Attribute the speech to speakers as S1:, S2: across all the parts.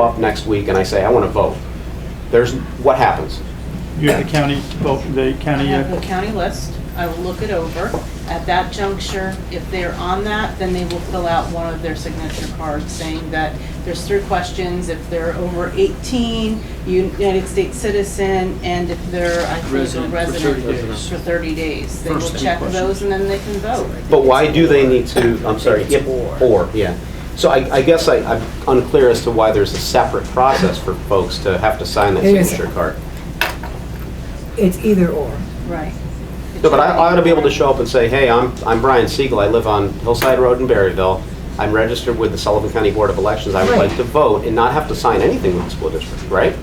S1: up next week and I say, I want to vote, there's, what happens?
S2: You have the county, vote the
S3: I
S2: county,
S3: have
S2: uh,
S3: the county list, I will look it over. At that juncture, if they're on that, then they will fill out one of their signature cards saying that there's three questions, if they're over 18, United States citizen, and if they're, I think, a
S4: Resident for 30
S3: resident
S4: days.
S3: for 30 days. They will
S4: First three
S3: check
S4: questions.
S3: those and then they can vote.
S1: But why do they need to, I'm sorry, if, or, yeah. So I, I guess I, I'm unclear as to why there's a separate process for folks to have to sign that
S5: It is.
S1: signature card.
S5: It's either or.
S3: Right. It
S1: No, but I,
S3: should
S1: I ought to be able to show up and say, hey, I'm, I'm Brian Siegel, I live on Hillside Road in Berryville, I'm registered with the Sullivan County Board of Elections, I would
S5: Right.
S1: like to vote and not have to sign anything with the school district, right?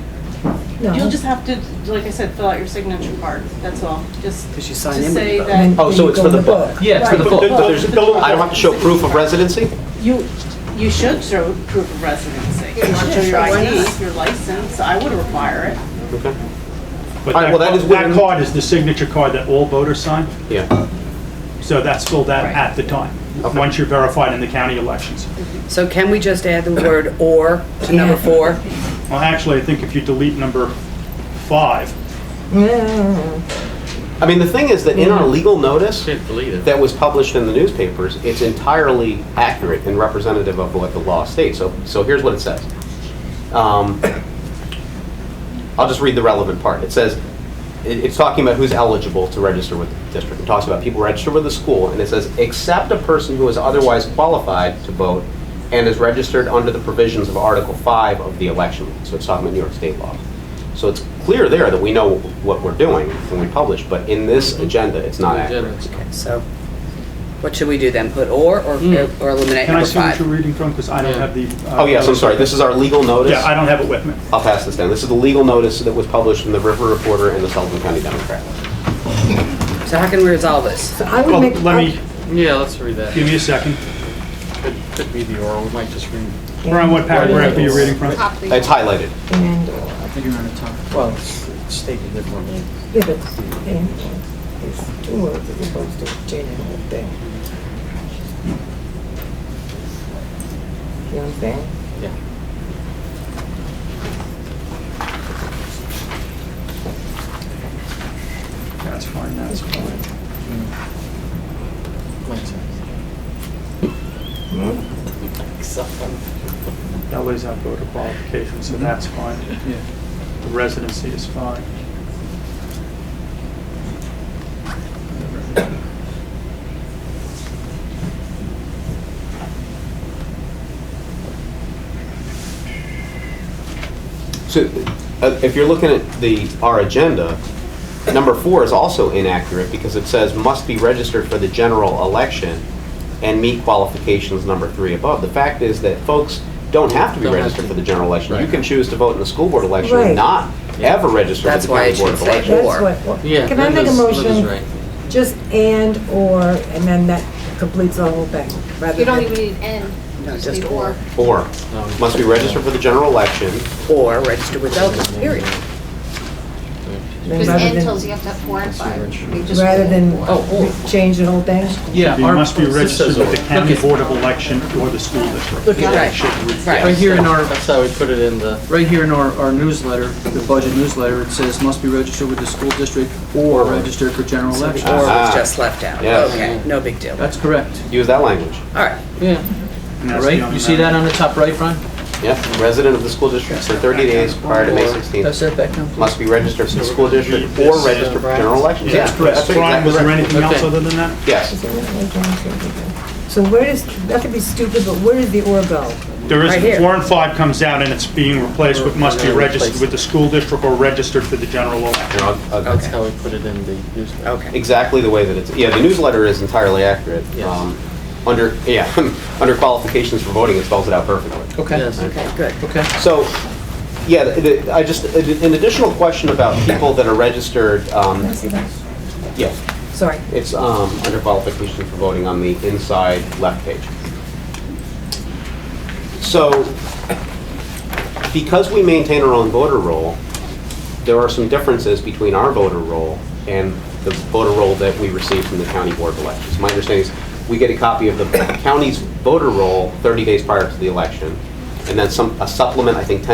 S3: You'll
S5: No,
S3: just have to, like I said, fill out your signature card, that's all, just.
S4: Because you sign
S3: just
S4: in with
S3: say
S4: the book.
S3: that-
S5: And
S1: Oh, so
S5: you
S1: it's
S5: go
S1: for
S5: in
S1: the
S5: the
S1: book.
S5: book.
S4: Yeah, it's for the
S2: But-
S4: full.
S2: but- but there's- don't-
S1: I don't have to show proof of residency?
S3: You, you should show proof of residency. You should show your ID, your license, I would require it.
S1: Okay,
S2: but
S1: All right, well, that
S2: that
S1: is
S2: ca- that
S1: within-
S2: card is the signature card that all voters sign,
S1: yeah.
S2: so that's filled out
S3: Right.
S2: at the time,
S1: Okay.
S2: once you're verified in the county elections.
S6: So can we just add the word "or" to number four?
S2: Well, actually, I think if you delete number five,
S5: Yeah.
S1: I mean, the thing is that in
S5: Mm-hmm.
S1: our legal notice,
S4: Can't believe it.
S1: that was published in the newspapers, it's entirely accurate and representative of what the law states. So, so here's what it says. Um, I'll just read the relevant part. It says, it- it's talking about who's eligible to register with the district. It talks about people registered with the school, and it says, except a person who is otherwise qualified to vote and is registered under the provisions of Article 5 of the election. law." So it's talking about New York State law. So it's clear there that we know what we're doing when we publish, but in this agenda, it's not accurate.
S6: Okay, so what should we do then? Put "or" or
S4: Mm.
S6: or eliminate
S2: can I
S6: number
S2: see what
S6: five?
S2: you're reading from, because I don't
S4: Yeah.
S2: have the. uh,
S1: Oh, yes, I'm sorry, this is our legal notice.
S2: Yeah, I don't have it with me.
S1: I'll pass this down. This is the legal notice that was published in the River Reporter and the Sullivan County Democrat.
S6: So how can we resolve this?
S5: So I
S2: Well,
S5: would make,
S2: Oh, let me,
S4: Yeah, let's read that.
S2: give me a second.
S4: Could- Could be the oral, we might just read.
S2: We're on what paragraph are you reading from?
S1: It's highlighted.
S5: and, or.
S4: I think you're on the top. Well, it's it's stated differently.
S5: Yeah, but and, or is two words as opposed to changing the whole thing. You know what I'm saying?
S4: Yeah.
S2: That's fine, that's fine.
S4: Makes sense.
S2: That lays out voter qualifications, so that's fine.
S4: Mm-hmm. Yeah.
S2: The residency is fine.
S1: So uh, if you're looking at the, our agenda, number four is also inaccurate because it says must be registered for the general election and meet qualifications number three above. The fact is that folks don't have to be
S4: Don't have
S1: registered
S4: to.
S1: for the general election. You
S4: Right.
S1: can choose to vote in the school board election and
S5: Right.
S1: not ever register for
S6: That's
S1: the
S6: why
S1: county
S6: it
S1: board of
S6: should say
S1: elections.
S6: that.
S5: That's
S6: Or.
S5: what, well,
S4: Yeah.
S5: can I make a
S4: Linda's- Linda's
S5: motion?
S4: right.
S5: Just and, or, and then that completes the whole thing, rather
S7: You don't
S5: than
S7: even need N.
S6: No,
S7: You
S6: just
S7: need
S6: or.
S1: Or
S4: No.
S1: must be registered for the general election
S6: Or register with voters, period.
S5: then
S7: Because
S5: rather
S7: N
S5: than-
S7: tells you have to have four and five. You just
S5: Rather
S7: roll
S5: than
S7: four.
S6: Oh,
S5: change the whole thing?
S4: Yeah.
S2: You
S4: our-
S2: must be
S4: this
S2: registered
S4: says
S2: with the
S4: oral.
S2: county
S4: Look, it's-
S2: board of election or the school district.
S6: Look at
S2: Yeah,
S6: that.
S2: it should read-
S6: Right.
S4: Right here in our, that's how we put it in the. Right here in our, our newsletter, the budget newsletter, it says must be registered with the school district or registered for general
S6: So
S4: election.
S6: the "or"
S1: Ah.
S6: was just left out.
S1: Yes.
S6: Okay, no big deal. All
S4: That's correct.
S1: use that language.
S6: right,
S4: Yeah.
S2: and that's the
S4: Right,
S2: only
S4: you see
S2: matter.
S4: that on the top right, Brian?
S1: Yep, resident of the school district for 30 days prior to May
S4: Or-
S1: 16th
S4: That's it, Beckham?
S1: must be registered for the school district or registered for general elections.
S2: Yeah, that's correct.
S1: what-
S2: Brian, was there
S1: exactly
S2: anything else
S4: Okay.
S2: other than that?
S1: right. Yes.
S5: So where does, that could be stupid, but where does the or go?
S2: There
S6: Right
S2: is,
S6: here.
S2: four and five comes out and it's being replaced with must be registered with the school district or registered for the general election.
S1: Here, I'll- I'll-
S6: Okay.
S4: That's how we put it in the newsletter.
S6: okay.
S1: uh, Exactly the way that it's, yeah, the newsletter is entirely accurate.
S4: Yes.
S1: Um, Under, yeah, under qualifications for voting, it spells it out perfectly.
S4: Yes.
S6: Okay, good.
S4: Okay.
S1: So, yeah, the- the- I just, an additional question about people that are registered, um, yeah,
S5: Sorry.
S1: it's um, under qualifications for voting on the inside left page. So, because we maintain our own voter roll, there are some differences between our voter roll and the voter roll that we receive from the county board of elections. My understanding is, we get a copy of the county's voter roll 30 days prior to the election, and then some, a supplement, I think ten